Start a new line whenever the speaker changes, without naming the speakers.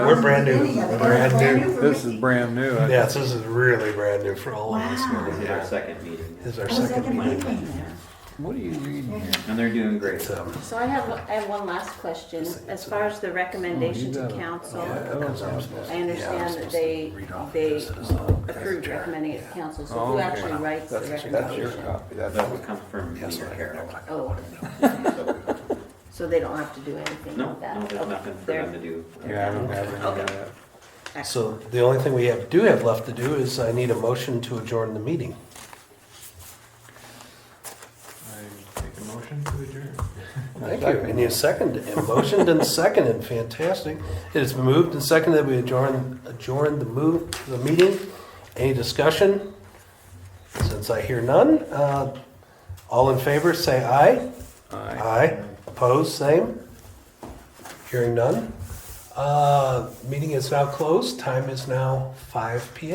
They're brand new.
Any of them.
Brand new.
for
This is
Mickey.
brand new. I-
Yes, this is really brand new for all of us.
Wow.
man.
This is
Yeah.
our second meeting.
This is our
I was at the
second meeting.
meeting there.
What are you reading here?
And they're doing great.
It's, um,
So I have, I have one last question. As far as the recommendation
Oh, you
to
got it.
council,
yeah, that comes out. Yeah,
I
I'm
understand that
supposed
they,
to read off
they
this as a-
approved
Yeah.
recommending it to council, so
Oh,
who
okay.
actually writes the
That's- that's your
recommendation?
copy. That's
That would come from
Yes,
Leader
I
Carroll.
know.
Oh,
So,
so they don't have to do anything
No,
with that?
no, there's
Okay,
nothing for
they're-
them to do.
Yeah, I don't have any of
Okay.
that.
excellent.
So the only thing we have, do have left to do is I need a motion to adjourn the meeting.
I make a motion to adjourn.
Thank you. And you seconded, and motioned and seconded, fantastic. It has been moved and seconded, we adjourn, adjourn the move, the meeting. Any discussion? Since I hear none, uh, all in favor, say aye.
Aye.
Aye. Opposed, same. Hearing none. Uh, meeting is now closed, time is now five P M.